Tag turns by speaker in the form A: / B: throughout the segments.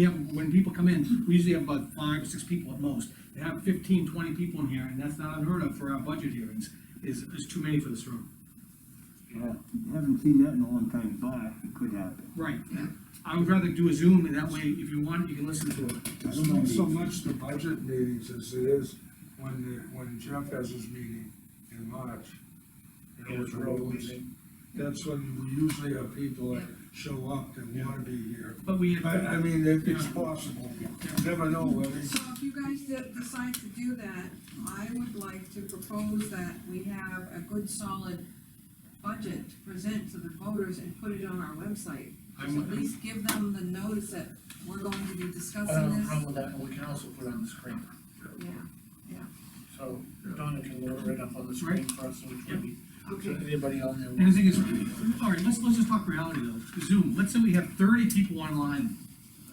A: Yeah, when people come in, we usually have about five, six people at most. They have 15, 20 people in here, and that's not unheard of for our budget hearings, is, is too many for this room.
B: Yeah, haven't seen that in a long time, but it could happen.
A: Right, I would rather do a Zoom, and that way, if you want, you can listen to it.
C: It's not so much the budget meetings as it is when, the- when Jeff has his meeting in March. You know, with Rose, that's when we usually have people that show up that wanna be here.
A: But we,
C: But, I
A: had-
C: mean, it- it's possible, you never know, I mean,
D: So if you guys de- decide to do that, I would like to propose that we have a good solid budget to present to the voters and put it on our website.
A: I'm-
D: At least give them the notice that we're going to be
E: I don't
D: discussing
E: have a
D: this.
E: problem with that, and we can also put it on the screen.
D: Yeah,
E: So Donna can load it right up on the screen for us, which would be, so
D: okay,
E: anybody on there.
A: and the thing is, all right, let's, let's just talk reality though. Zoom, let's say we have 30 people online.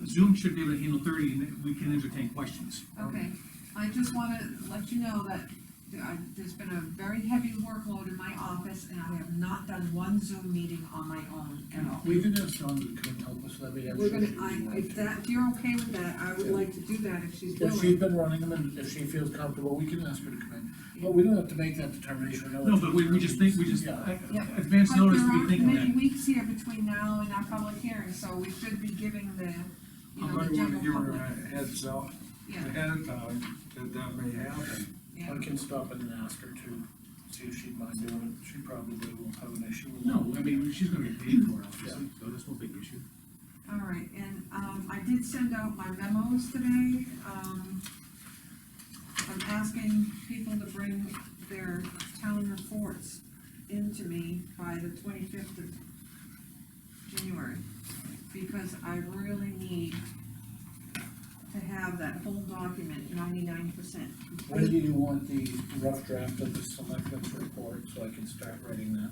A: Zoom should be able to handle 30, and then we can entertain questions.
D: okay. I just wanna let you know that there- I- there's been a very heavy workload in my office, and I have not done one Zoom meeting on my own at all.
E: We can have Donna come help us, that'd be
D: We're
E: actually.
D: gonna, I, if that, if you're okay with that, I would like to do that if she's willing.
E: If she's been running them, and if she feels comfortable, we can ask her to come in, but we don't have to make that determination.
A: No, but we, we just think, we just,
E: Yeah.
D: Yeah.
A: advance
D: But
A: notice,
D: there
A: we
D: aren't
A: think of that.
D: many weeks here between now and our public hearing, so we should be giving the,
C: I
D: you know,
C: might
D: the
C: wanna
D: general
C: give her
D: public.
C: a heads up
D: Yeah,
C: ahead of time that that may happen.
D: yeah.
E: I can stop in and ask her to, see if she'd mind doing it, she probably won't have an issue with it.
A: No, I mean, she's gonna get paid for it, obviously, so that's no big issue.
D: All right, and, um, I did send out my memos today, um, I'm asking people to bring their town reports into me by the twenty-fifth of January, because I really need to have that whole document ninety-nine percent
E: When do you want the rough draft of the selectmen's report, so I can start writing that?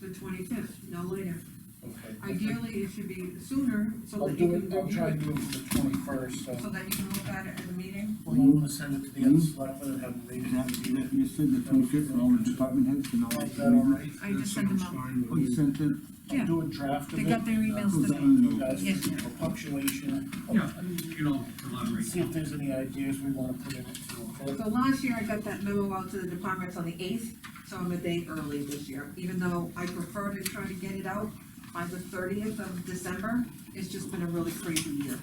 D: The twenty-fifth, no later.
E: Okay.
D: Ideally, it should be sooner, so
E: I'll
D: that you
E: do
D: can
E: it, I'll try
D: review
E: and do it for the twenty-first,
D: it, so
E: so. Hmm?
D: that you can look at it at the meeting.
E: Well, you wanna send it to the other selectmen and have them read it?
B: Exactly, like you said, the twenty-fifth, all the department heads can all.
E: Is that all right?
D: I just sent them out.
B: Oh, you sent it?
D: Yeah.
E: I'll do a draft of it.
D: They got their emails
E: uh,
B: today.
E: you guys,
D: Yeah.
E: for punctuation.
A: Yeah, you can all collaborate.
E: See if there's any ideas we wanna put in it, so. okay?
D: So last year, I got that memo out to the departments on the eighth, so I'm a day early this year, even though I prefer to try to get it out by the thirtieth of December, it's just been a really crazy year.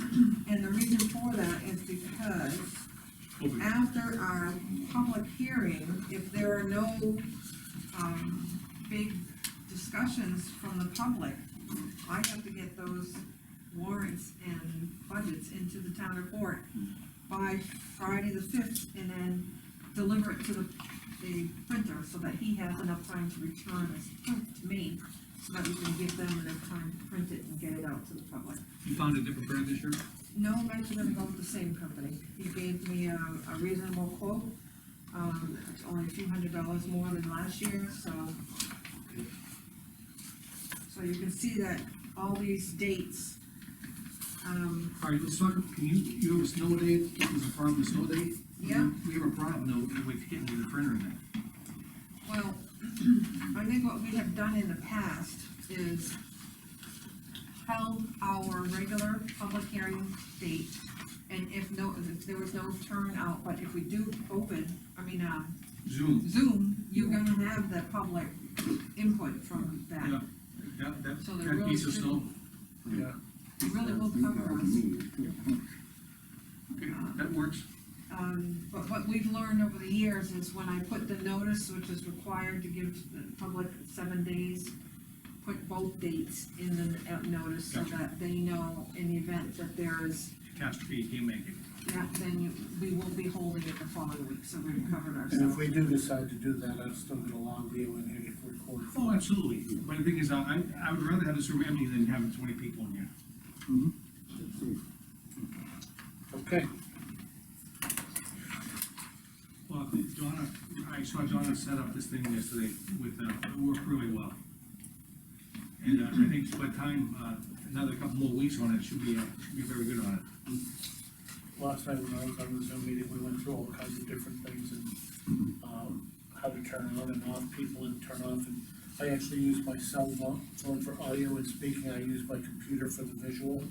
D: And the reason for that is because
A: Open.
D: after our public hearing, if there are no, um, big discussions from the public, I have to get those warrants and budgets into the town report by Friday the fifth, and then deliver it to the, the printer, so that he has enough time to return it to me, so that we can give them enough time to print it and get it out to the public.
A: You found a different brand this year?
D: No mention of going with the same company. He gave me a, a reasonable quote. Um, it's only a few hundred dollars more than last year, so. So you can see that all these dates, um,
A: All right, let's talk, can you, you have a snow day, there's a problem with snow day?
D: Yeah.
A: We have a problem though with getting the printer in there.
D: well, I think what we have done in the past is held our regular public hearing date, and if no, if there was no turnout, but if we do open, I mean, um,
A: Zoom,
D: Zoom, you're gonna have the public input from
A: yeah, that,
D: that.
A: that,
D: So they're
A: that
D: really
A: piece of
D: good.
A: snow,
E: Yeah,
D: It really will cover us.
A: okay,
D: uh,
A: that works.
D: Um, but what we've learned over the years is when I put the notice, which is required to give to the public seven days, put both dates in the uh, notice so
A: Gotcha.
D: that they know in the event that there is,
A: Catastrophe, you can't make it.
D: that, then you- we will be holding it the following week, so we've covered
E: and if
D: ourselves.
E: we do decide to do that, I've still got a long deal in here to record.
A: Oh, absolutely, but the thing is, I, I would rather have this room empty than having twenty people in here.
E: Okay,
A: Well, Donna, I saw Donna set up this thing yesterday with, uh, it worked really well. And uh, I think by the time, uh, another couple more weeks on it, should be, uh, should be very good on it.
E: last night when I was on the Zoom meeting, we went through all kinds of different things and, um, how to turn on and off people and turn off and I actually use my cell phone for audio and speaking, I use my computer for the visual.